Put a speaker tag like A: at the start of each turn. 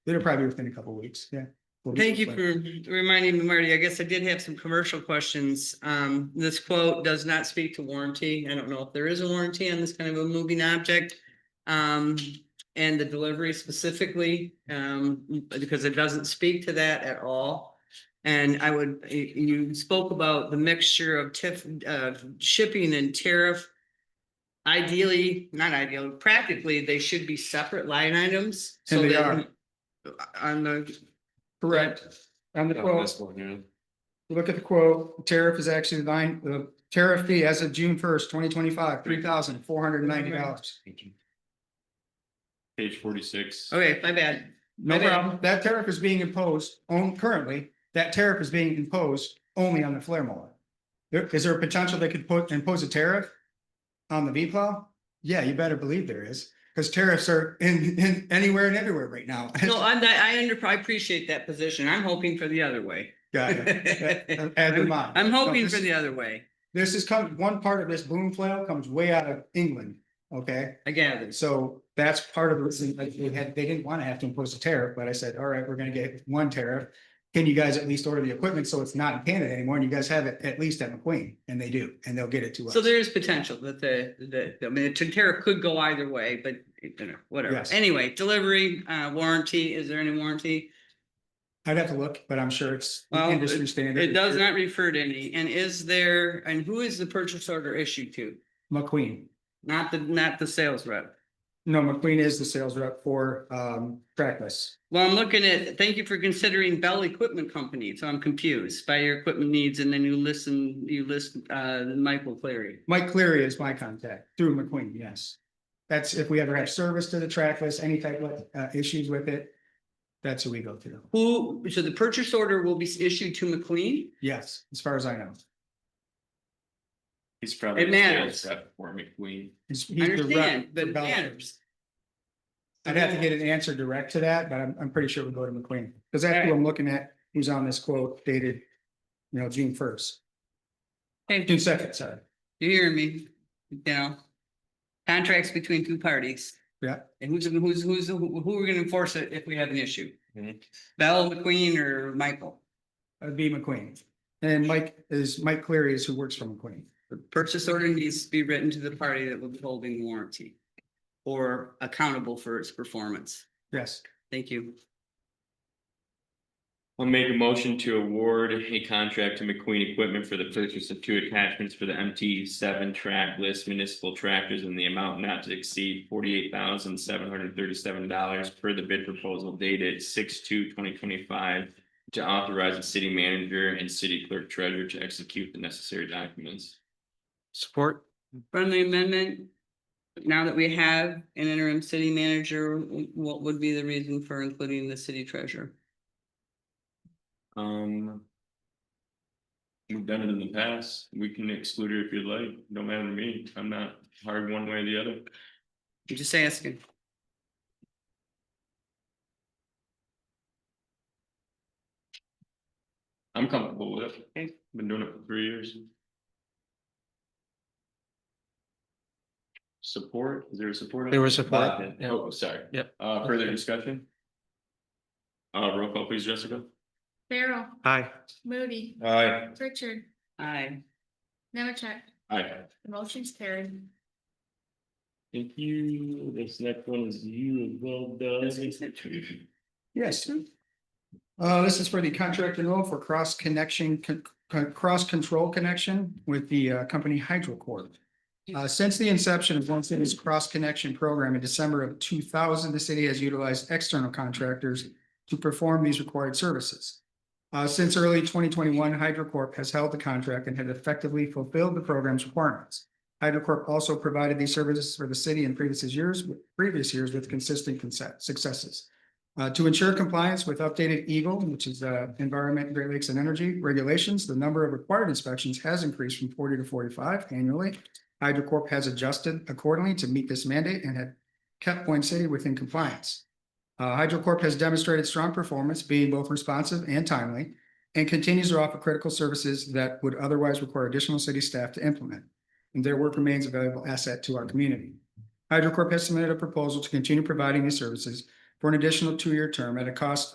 A: It'll probably be within a couple of weeks, yeah. We'll be-
B: Thank you for reminding me, Marty. I guess I did have some commercial questions. Um, this quote does not speak to warranty. I don't know if there is a warranty on this kind of a moving object. Um, and the delivery specifically, um, because it doesn't speak to that at all. And I would, you, you spoke about the mixture of tiff, uh, shipping and tariff. Ideally, not ideally, practically, they should be separate line items.
A: And
B: so
A: they
B: that-
A: are.
B: On the
A: Correct. On the
C: Oh,
A: quote,
C: this one, yeah.
A: look at the quote, tariff is actually line, the tariff fee as of June first, twenty twenty-five, three thousand four hundred and ninety dollars.
C: Page forty-six.
B: Okay, my bad.
A: No
B: Okay.
A: problem. That tariff is being imposed on currently, that tariff is being imposed only on the flare mower. There, is there a potential they could put, impose a tariff on the V plow? Yeah, you better believe there is, because tariffs are in, in anywhere and everywhere right now.
B: No, I'm not, I under, I appreciate that position. I'm hoping for the other way.
A: Got it.
B: I'm
A: As am I.
B: hoping
A: So this-
B: for the other way,
A: This is coming, one part of this boom flail comes way out of England, okay?
B: I gather.
A: So that's part of the reason, like, they had, they didn't wanna have to impose a tariff, but I said, all right, we're gonna get one tariff. Can you guys at least order the equipment so it's not in Canada anymore and you guys have it at least at McQueen? And they do, and they'll get it to us.
B: So there is potential that the, the, I mean, the tariff could go either way, but you know, whatever.
A: Yes.
B: Anyway, delivery, uh, warranty, is there any warranty?
A: I'd have to look, but I'm sure it's
B: Well,
A: industry standard.
B: It does not refer to any, and is there, and who is the purchase order issued to?
A: McQueen.
B: Not the, not the sales rep.
A: No, McQueen is the sales rep for, um, Trackless.
B: Well, I'm looking at, thank you for considering Bell Equipment Company, so I'm confused by your equipment needs, and then you listen, you list, uh, Michael Clary.
A: Mike Cleary is my contact through McQueen, yes. That's if we ever have service to the trackless, any type of uh issues with it. That's who we go to.
B: Who, so the purchase order will be issued to McLean?
A: Yes, as far as I know.
C: He's probably.
B: It
C: a sales
B: matters.
C: rep For McQueen.
A: He's-
B: I
A: he's the rep
B: understand, but
A: for
B: it
A: Bell.
B: matters.
A: I'd have to get an answer direct to that, but I'm I'm pretty sure we go to McQueen, because that's who I'm looking at, who's on this quote dated. You know, June first,
B: Hey,
A: June second, sorry.
B: you hear me? You know, contracts between two parties.
A: Yeah.
B: And who's, who's, who's, who who are gonna enforce it if we have an issue?
C: Mhm.
B: Bell, McLean, or Michael?
A: That'd be McQueen. And Mike is, Mike Cleary is who works for McQueen.
B: The purchase order needs to be written to the party that will be holding the warranty or accountable for its performance.
A: Yes,
B: Thank you.
C: I'll make a motion to award a contract to McQueen Equipment for the purchase of two attachments for the MT seven track list municipal tractors in the amount not to exceed forty-eight thousand seven hundred thirty-seven dollars per the bid proposal dated six two twenty twenty-five to authorize the city manager and city clerk treasurer to execute the necessary documents.
A: support.
B: Friendly amendment. Now that we have an interim city manager, what would be the reason for including the city treasurer?
C: Um. We've done it in the past, we can exclude her if you'd like, no matter to me, I'm not hard one way or the other.
B: I'm just asking.
C: I'm comfortable with
B: Okay.
C: it, been doing it for three years. Support, is there a support? on
D: There
C: it?
D: was support,
C: Bob,
D: yeah.
C: Oh, sorry.
D: Yep.
C: Uh, further discussion? Uh, roll call please, Jessica.
E: Farrell,
D: Aye.
E: Moody,
C: Aye.
E: Pritchard,
B: Aye.
E: Nemecheck,
C: Aye.
E: the motion's carried.
C: Thank you, this next one is you as well, Doug.
A: Yes. Uh, this is for the contract renewal for cross connection, con- con- cross control connection with the uh, company Hydro Corp. Uh, since the inception of One City's cross connection program in December of two thousand, the city has utilized external contractors to perform these required services. Uh, since early twenty twenty-one, Hydro Corp has held the contract and had effectively fulfilled the program's requirements. Hydro Corp also provided these services for the city in previous years, previous years with consistent conse- successes. Uh, to ensure compliance with updated Eagle, which is uh, Environment, Great Lakes and Energy regulations, the number of required inspections has increased from forty to forty-five annually. Hydro Corp has adjusted accordingly to meet this mandate and had kept Point City within compliance. Uh, Hydro Corp has demonstrated strong performance, being both responsive and timely, and continues to offer critical services that would otherwise require additional city staff to implement. And their work remains a valuable asset to our community. Hydro Corp has submitted a proposal to continue providing these services for an additional two-year term at a cost